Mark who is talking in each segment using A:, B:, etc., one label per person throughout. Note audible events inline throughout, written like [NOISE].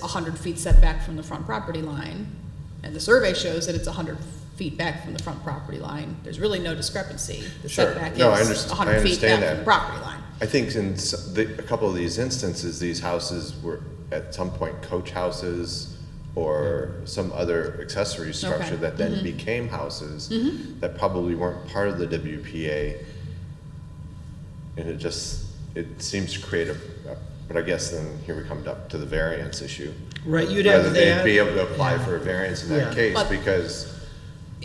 A: 100 feet setback from the front property line, and the survey shows that it's 100 feet back from the front property line, there's really no discrepancy. The
B: Sure.
A: setback
B: No, I
A: is
B: underst- I
A: 100 feet back
B: understand
A: from
B: that.
A: the property line.
B: I think in s- the, a couple of these instances, these houses were at some point coach houses or some other accessory structure that then became houses that probably weren't part of the WPA. And it just, it seems to create a, a- but I guess then here we come up to the variance issue.
C: Right, you'd
B: Whether
C: have
B: they'd be
C: that.
B: able to apply for a variance in
C: Yeah.
B: that case
A: But-
B: because,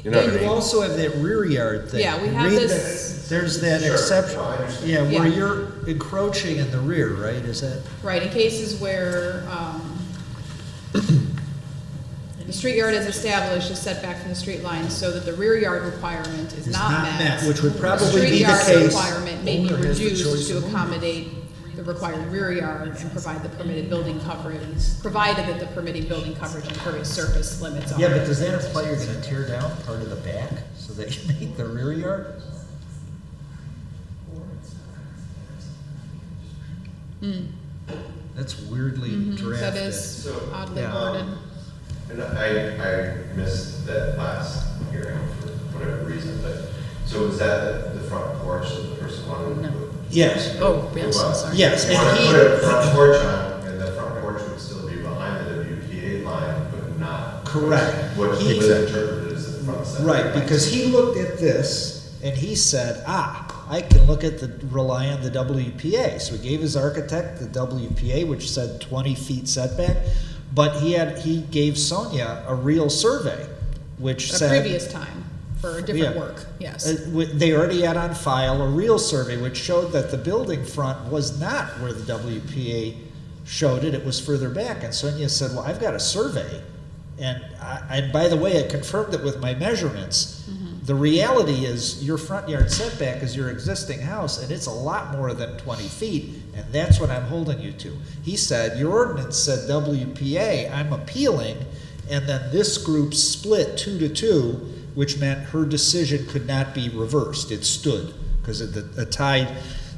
B: you know what I
C: And you
B: mean?
C: also have that rear yard thing.
A: Yeah, we have
C: Read
A: this-
C: that- There's that
B: Sure.
C: exception,
B: No, I understand.
C: yeah, where
A: Yeah.
C: you're encroaching in the rear, right, is that?
A: Right, in cases where um, the street yard is established, a setback from the street line, so that the rear yard requirement is
C: It's
A: not met.
C: Which would probably
A: Street
C: be the
A: yard
C: case.
A: requirement may be
D: Owner has the
A: reduced
D: choice
A: to
D: of owner.
A: accommodate the required rear yard and provide the permitted building coverage, provided that the permitted building coverage and impervious surface limits are.
D: Yeah, but does that imply you're gonna tear down part of the back so that you [LAUGHS] make the rear yard? That's weirdly
A: Mhm, Hmm. That
D: drafted.
A: is oddly
C: Yeah.
A: worded.
B: And I, I missed that last hearing for whatever reason, but, so was that the front porch that the person wanted to put?
C: Yes,
A: Oh, yes, I'm sorry.
C: yes,
B: You wanna
C: and
B: put
C: he,
B: a front porch on, and the front porch would still be behind the WPA line, but not.
C: Correct.
B: What was
C: He-
B: interpreted as the front setback.
C: right, because he looked at this and he said, ah, I can look at the, rely on the WPA. So he gave his architect the WPA, which said twenty feet setback, but he had, he gave Sonia a real survey, which
A: At a
C: said.
A: previous time, for a different
C: Yeah.
A: work, yes.
C: Uh, wi- They already had on file a real survey which showed that the building front was not where the WPA showed it, it was further back. And Sonia said, well, I've got a survey. And I, and by the way, I confirmed it with my measurements. The reality is your front yard setback is your existing house and it's a lot more than twenty feet. And that's what I'm holding you to. He said, your ordinance said WPA, I'm appealing. And then this group split two to two, which meant her decision could not be reversed. It stood because a tie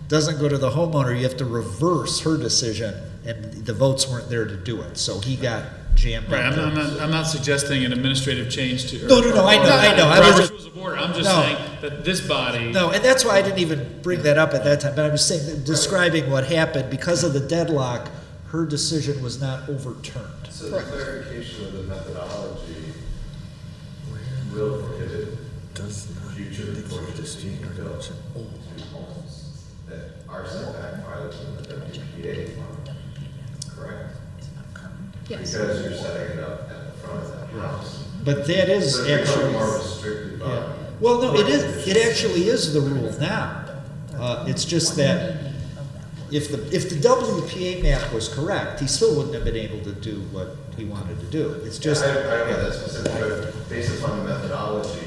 C: doesn't go to the homeowner. You have to reverse her decision, and the votes weren't there to do it. So he got jammed.
E: Right, I'm,
C: up.
E: I'm not, I'm not suggesting an administrative change to.
C: No, no, no, I know, I know, I was
E: Robert's
C: just-
E: rules of order, I'm just
C: No.
E: saying that this body.
C: No, and that's why I didn't even bring that up at that time. But I was saying, that describing what happened because of the deadlock, her decision was not overturned.
F: So the
A: Correct.
F: clarification of the methodology will prohibit future portions being built to homes that are setback violation of the WPA, correct?
A: Yes.
F: Because you're setting it up at the front of that house.
C: But that is
F: So it becomes
C: actually.
F: more restricted by.
C: Yeah. Well, no, it is, it actually is the rule now. Uh, it's just that if the, if the WPA map was correct, he still wouldn't have been able to do what he wanted to do. It's
F: Yeah,
C: just,
F: I, I don't know that specific, but based upon the methodology,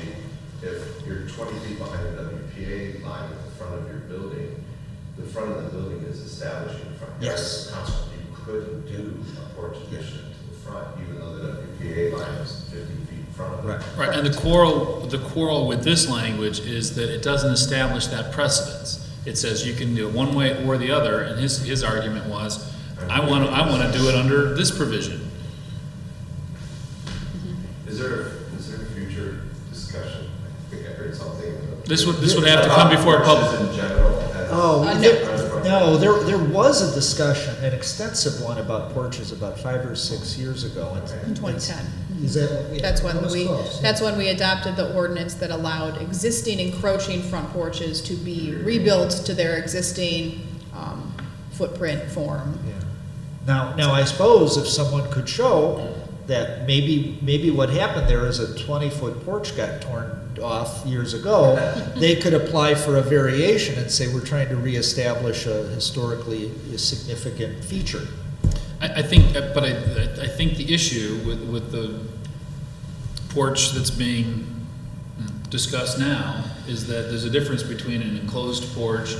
F: if you're twenty feet behind the WPA line at the front of your building, the front of the building is establishing the front yard.
C: Yes.
F: Consequently, you couldn't do a porch addition to the front, even though the WPA line is fifty feet in front of it.
C: right.
E: Right, and the quarrel, the quarrel with this language is that it doesn't establish that precedence. It says you can do it one way or the other, and his, his argument was, I want, to I want to do it under this provision.
F: Is there, is there a future discussion? I think I heard something. in the-
E: This would, this would have to come before a
F: About
E: public.
F: porches in general. as-
C: Oh,
A: Uh,
C: there- no, there, there was a discussion, an extensive one about porches about five or six years ago. and-
A: In 2010.
C: Is that? yeah,
A: That's
C: that
A: when
C: was
A: we,
C: close, yeah.
A: that's when we adopted the ordinance that allowed existing encroaching front porches to be rebuilt to their existing um, footprint form.
C: Yeah. Now, now I suppose if someone could show that maybe, maybe what happened there is a twenty-foot porch got torn off years ago, they could apply for a variation and say, we're trying to reestablish a historically significant feature.
E: I, I think, that- but I, I- I think the issue with, with the porch that's being discussed now is that there's a difference between an enclosed porch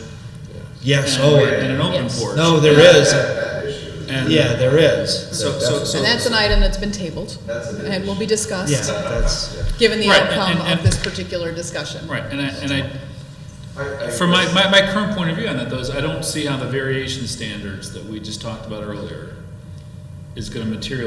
C: Yes,
E: and,
C: oh,
E: and an
C: yeah.
E: open
A: Yes.
E: porch.
C: no, there is,
F: That issue is
E: And-
C: yeah, there is.
E: So- so- so-
A: And that's an item that's been tabled
F: That's a big
A: and will be
C: Yeah,
A: discussed,
C: that's,
A: given the
E: Right, and-
A: outcome
E: and-
A: of this particular discussion.
E: Right, and I, and
F: I-
E: I,
F: I
E: from my,
F: guess-
E: my, my current point of view on that though, is I don't see how the variation standards that we just talked about earlier is gonna materially